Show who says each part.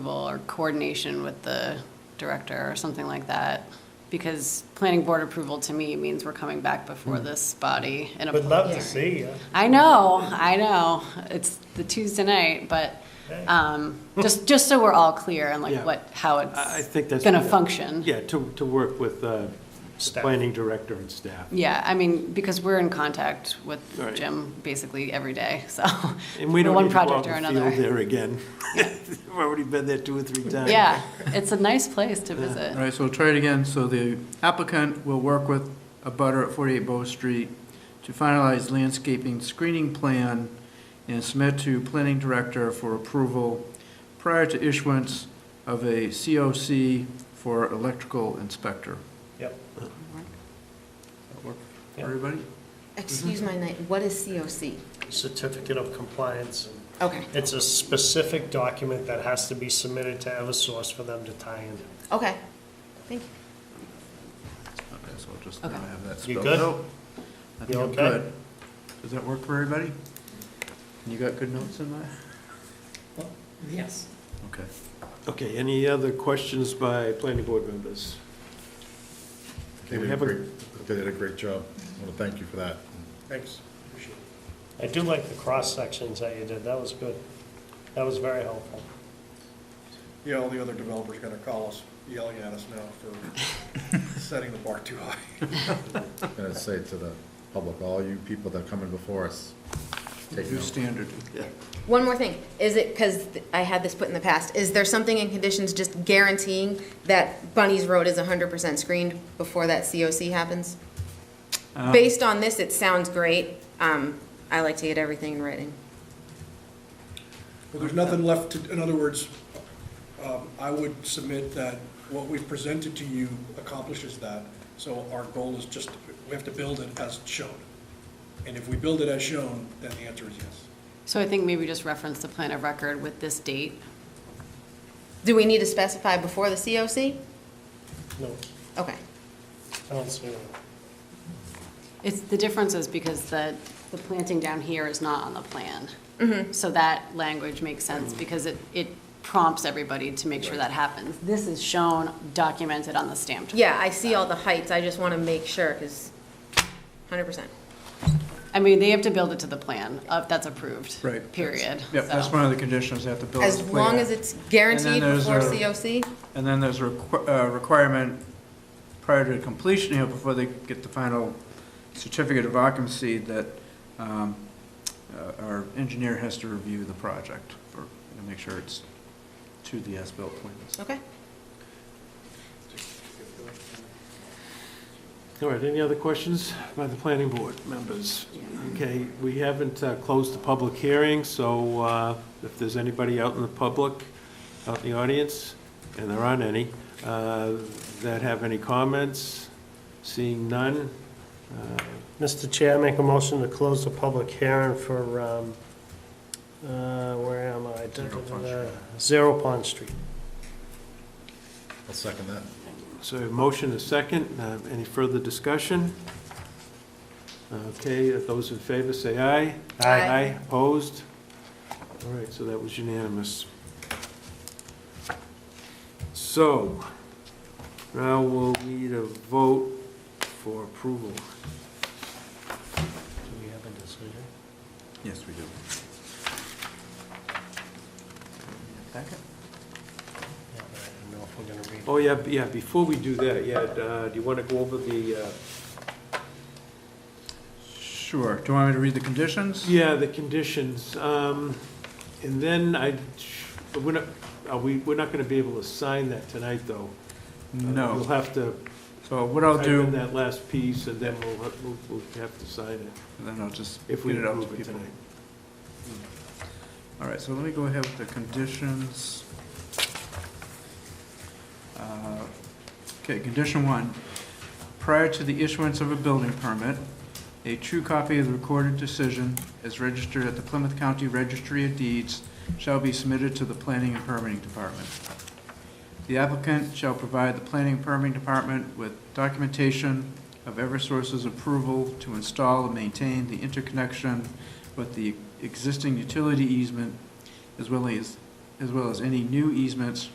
Speaker 1: or coordination with the director or something like that. Because planning board approval to me means we're coming back before
Speaker 2: Hmm.
Speaker 1: this body in a
Speaker 3: Would
Speaker 1: public
Speaker 3: love to
Speaker 1: hearing.
Speaker 3: see you.
Speaker 1: I know, I know. It's the Tuesday night, but um, just, just so we're all clear on like
Speaker 2: Yeah.
Speaker 1: what, how
Speaker 2: I I
Speaker 1: it's
Speaker 2: think that's.
Speaker 1: going to function.
Speaker 2: Yeah, to, to work with uh,
Speaker 3: Staff.
Speaker 2: planning director and staff.
Speaker 1: Yeah, I mean, because we're in contact with
Speaker 2: Right.
Speaker 1: Jim basically every day, so.
Speaker 2: And we
Speaker 1: for
Speaker 2: don't
Speaker 1: one
Speaker 2: need to go
Speaker 1: project
Speaker 2: out
Speaker 1: or
Speaker 2: and
Speaker 1: another.
Speaker 2: field there again. We've already been there two or three times.
Speaker 1: Yeah, it's a nice place to visit.
Speaker 4: All right, so we'll try it again. So the applicant will work with a butter at 48 Bow Street to finalize landscaping screening plan and submit to planning director for approval prior to issuance of a COC for electrical inspector.
Speaker 3: Yep.
Speaker 4: That work for
Speaker 3: Yeah.
Speaker 4: Everybody?
Speaker 5: Excuse my night, what is COC?
Speaker 3: Certificate of compliance.
Speaker 5: Okay,
Speaker 3: It's a specific document that has to be submitted to Eversource for them to tie in.
Speaker 5: okay, thank you.
Speaker 4: Okay, so I'll just now
Speaker 1: Okay.
Speaker 4: have that
Speaker 3: You
Speaker 4: spelled
Speaker 3: good?
Speaker 4: out. I think
Speaker 3: You
Speaker 4: I'm
Speaker 3: okay?
Speaker 4: good. Does that work for everybody? You got good notes in that?
Speaker 1: Yes.
Speaker 4: Okay.
Speaker 2: Okay, any other questions by planning board members?
Speaker 6: They
Speaker 2: We
Speaker 6: did a
Speaker 2: have a-
Speaker 6: great, they did a great job. I want to thank you for that.
Speaker 3: Thanks. I do like the cross sections that you did. That was good. That was very helpful.
Speaker 7: Yeah, all the other developers are gonna call us, yelling at us now for setting the bar too high.
Speaker 6: I'm going to say to the public, all you people that are coming before us, take
Speaker 4: New
Speaker 6: note.
Speaker 4: standard.
Speaker 5: One more thing, is it, because I had this put in the past, is there something in conditions just guaranteeing that Bunny's Road is hundred percent screened before that COC happens?
Speaker 4: Um.
Speaker 5: Based on this, it sounds great, um, I like to get everything in writing.
Speaker 8: Well, there's nothing left to, in other words, um, I would submit that what we've presented to you accomplishes that. So our goal is just, we have to build it as shown. And if we build it as shown, then the answer is yes.
Speaker 1: So I think maybe just reference the plan of record with this date.
Speaker 5: Do we need to specify before the COC?
Speaker 3: No,
Speaker 5: Okay,
Speaker 3: I don't see it.
Speaker 1: It's, the difference is because the, the planting down here is not on the plan. So that language makes sense because it, it prompts everybody to make sure that happens. This is shown, documented on the stamped.
Speaker 5: yeah, I see all the heights, I just want to make sure, because hundred percent.
Speaker 1: I mean, they have to build it to the plan, uh, that's approved.
Speaker 4: Right. that's-
Speaker 1: Period.
Speaker 4: Yep, that's
Speaker 1: So-
Speaker 4: one of the conditions, they have to build.
Speaker 5: As
Speaker 4: the plan.
Speaker 5: long as it's guaranteed
Speaker 4: there's
Speaker 5: before
Speaker 4: a-
Speaker 5: COC?
Speaker 4: And then there's a requ- uh, requirement prior to completion here, before they get the final certificate of occupancy, that um, uh, our engineer has to review the project for, and make sure it's to the as-built plans.
Speaker 5: Okay.
Speaker 2: All right, any other questions by the planning board members? Okay, we haven't uh, closed the public hearing, so uh, if there's anybody out in the public, out in the audience, and there aren't any, uh, that have any comments, seeing none, uh,
Speaker 3: Mr. Chair, I make a motion to close the public hearing for, um, uh, where am I?
Speaker 4: Zero Pond Street.
Speaker 3: Zero Pond Street.
Speaker 6: I'll second that.
Speaker 2: So a motion is second. Uh, Any further discussion? Okay, if those in favor say aye.
Speaker 5: Aye.
Speaker 2: Aye, opposed? All right, so that was unanimous. So, now we'll need a vote for approval.
Speaker 3: Do we have a decision?
Speaker 4: Yes, we do. Packet?
Speaker 3: Yeah, but I don't know if we're gonna read.
Speaker 2: Oh, yeah, b- yeah, before we do that, yeah, uh, do you want to go over the, uh,
Speaker 4: Sure, do you want me to read the conditions?
Speaker 2: yeah, the conditions? Um, And then I, but we're not, are we, we're not going to be able to sign that tonight, though. You'll
Speaker 4: No,
Speaker 2: have to
Speaker 4: so what I'll
Speaker 2: type
Speaker 4: do,
Speaker 2: in
Speaker 4: and
Speaker 2: that last piece, and then we'll, ha- we'll- we'll have to sign it,
Speaker 4: then I'll just get
Speaker 2: if we
Speaker 4: it out to
Speaker 2: approve it
Speaker 4: people.
Speaker 2: tonight.
Speaker 4: All right, so let me go ahead with the conditions. Uh, Okay, condition one, prior to the issuance of a building permit, a true copy of the recorded decision as registered at the Plymouth County Registry of Deeds shall be submitted to the Planning and Permitting Department. The applicant shall provide the Planning and Permitting Department with documentation of Eversource's approval to install and maintain the interconnection with the existing utility easement as well as, as well as any new easements